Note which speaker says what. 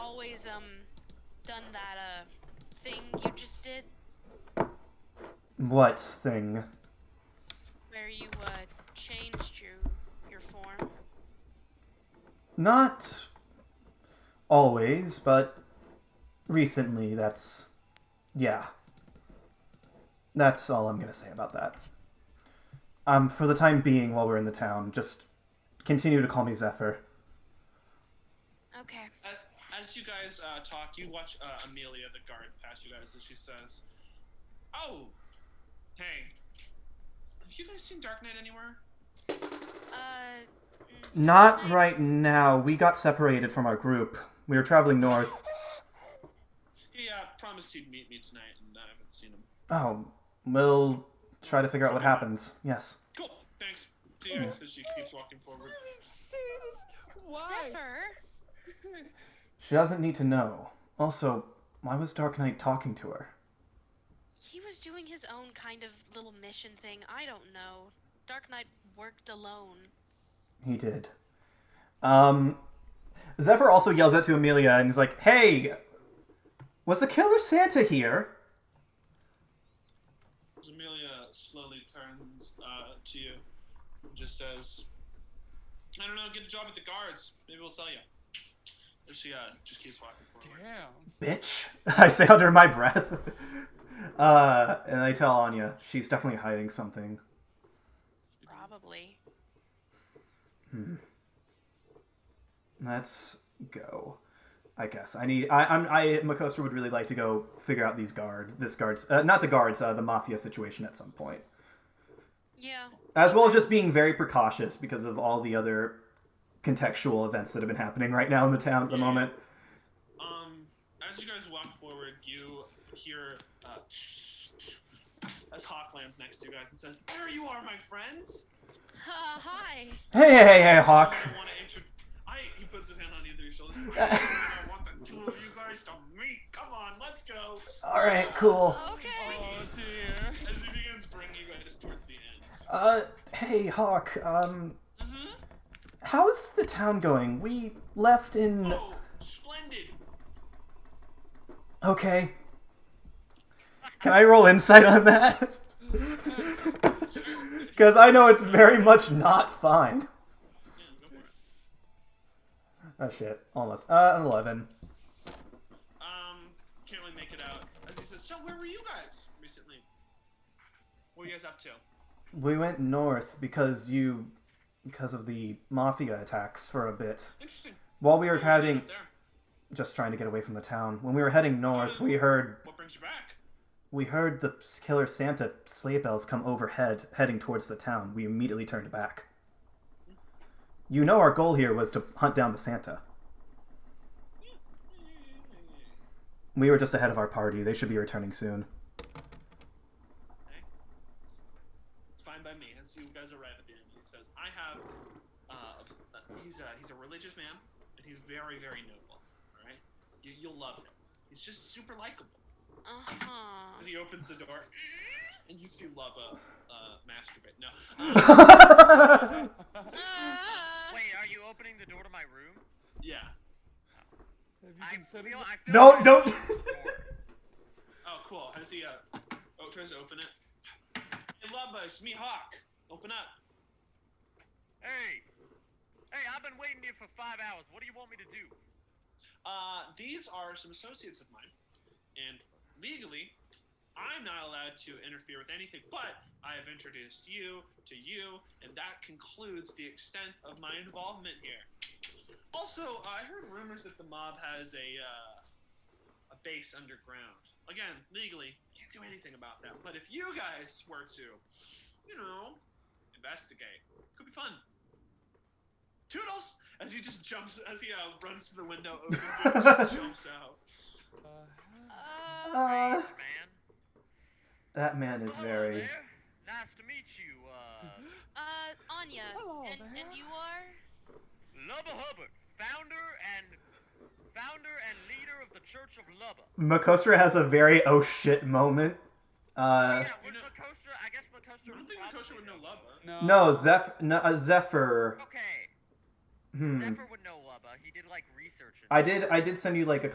Speaker 1: always um done that uh thing you just did
Speaker 2: What thing?
Speaker 1: where you uh changed your your form.
Speaker 2: Not always, but recently that's. Yeah. That's all I'm going to say about that. Um, for the time being, while we're in the town, just continue to call me Zephyr.
Speaker 1: Okay.
Speaker 3: A- As you guys uh, talk, you watch uh, Amelia, the guard, pass you guys, and she says, "Oh, hey, have you guys seen Dark Knight anywhere?"
Speaker 1: Uh mm,
Speaker 2: Not right now. We got separated from our group. We were traveling north.
Speaker 3: He uh, promised he'd meet me tonight, and I haven't seen him.
Speaker 2: Oh, we'll try to figure out what happens. Yes.
Speaker 3: Cool. Thanks. See you guys. As she keeps walking forward.
Speaker 4: say this. Why?
Speaker 1: Zephyr.
Speaker 2: She doesn't need to know. Also, why was Dark Knight talking to her?
Speaker 1: He was doing his own kind of little mission thing. I don't know. Dark Knight worked alone.
Speaker 2: He did. Um, Zephyr also yells out to Amelia and is like, "Hey, was the killer Santa here?"
Speaker 3: As Amelia slowly turns uh, to you and just says, "I don't know. Get a job at the guards. Maybe we'll tell you." As she uh, just keeps walking forward.
Speaker 4: Damn.
Speaker 2: Bitch, I say under my breath. Uh, and I tell Anya she's definitely hiding something.
Speaker 1: Probably.
Speaker 2: Let's go. I guess I need. I, I'm. I Makosa would really like to go figure out these guard. This guards. Uh, not the guards. Uh, the mafia situation at some point.
Speaker 1: Yeah.
Speaker 2: as well as just being very precautious because of all the other contextual events that have been happening right now in the town at the moment.
Speaker 3: Um, as you guys walk forward, you hear uh, as Hawk lands next to you guys and says, "There you are, my friends."
Speaker 1: Uh, hi.
Speaker 2: Hey, hey, hey, hey, Hawk.
Speaker 3: I want to intro. I. He puts his hand on either of your shoulders. I want the two of you guys to meet. Come on, let's go.
Speaker 2: All right, cool.
Speaker 1: Okay.
Speaker 4: Oh dear.
Speaker 3: As he begins bringing you guys towards the end.
Speaker 2: Uh, hey, Hawk. Um, how's the town going? We left in.
Speaker 3: Oh, splendid.
Speaker 2: Okay. Can I roll insight on that? Because I know it's very much not fine.
Speaker 3: Yeah, go for it.
Speaker 2: Oh shit, almost. Uh, an eleven.
Speaker 3: Um, can't really make it out. As he says, so where were you guys recently? What were you guys up to?
Speaker 2: We went north because you, because of the mafia attacks for a bit.
Speaker 3: Interesting.
Speaker 2: While we were having
Speaker 3: Up there.
Speaker 2: just trying to get away from the town. When we were heading north, we heard
Speaker 3: What brings you back?
Speaker 2: we heard the killer Santa sleigh bells come overhead, heading towards the town. We immediately turned back. You know, our goal here was to hunt down the Santa. We were just ahead of our party. They should be returning soon.
Speaker 3: Okay. It's fine by me. As you guys arrive at the end, he says, "I have." Uh, he's a he's a religious man, and he's very very noble. All right, you, you'll love him. He's just super likable.
Speaker 1: Uh huh.
Speaker 3: As he opens the door, and you see Lubba uh, masturbate. No, Uh,
Speaker 1: Uh,
Speaker 5: Wait, are you opening the door to my room?
Speaker 3: yeah.
Speaker 4: Have
Speaker 5: I
Speaker 4: you considered
Speaker 5: feel,
Speaker 4: it?
Speaker 5: I feel
Speaker 2: No,
Speaker 5: like-
Speaker 2: don't.
Speaker 3: Oh, cool. As he uh, oh tries to open it. Hey, Lubba, it's me, Hawk. Open up.
Speaker 5: Hey, hey, I've been waiting here for five hours. What do you want me to do?
Speaker 3: Uh, these are some associates of mine, and legally, I'm not allowed to interfere with anything. But I have introduced you to you, and that concludes the extent of my involvement here. Also, I heard rumors that the mob has a uh, a base underground. Again, legally, can't do anything about that. But if you guys were to, you know, investigate, could be fun. Toodles! As he just jumps, as he uh, runs to the window, opens it, and just jumps out.
Speaker 4: Uh-huh.
Speaker 1: Uh,
Speaker 2: Uh,
Speaker 5: Strange, man.
Speaker 2: that man is
Speaker 5: Hello
Speaker 2: very.
Speaker 5: there. Nice to meet you, uh,
Speaker 1: uh, Anya.
Speaker 4: Hello
Speaker 1: And,
Speaker 4: there.
Speaker 1: and you are?
Speaker 5: Lubba Hubbard, founder and founder and leader of the Church of Lubba.
Speaker 2: Makostra has a very oh shit moment. Uh,
Speaker 5: yeah,
Speaker 3: you
Speaker 5: was
Speaker 3: know-
Speaker 5: Makostra? I guess Makostra.
Speaker 3: I don't think Makosha would know Lubba.
Speaker 4: No.
Speaker 2: no, Zeph, no, uh, Zephyr.
Speaker 5: Okay,
Speaker 2: Hmm.
Speaker 5: Zephyr would know Lubba. He did like research. and
Speaker 2: I did. I did send you like a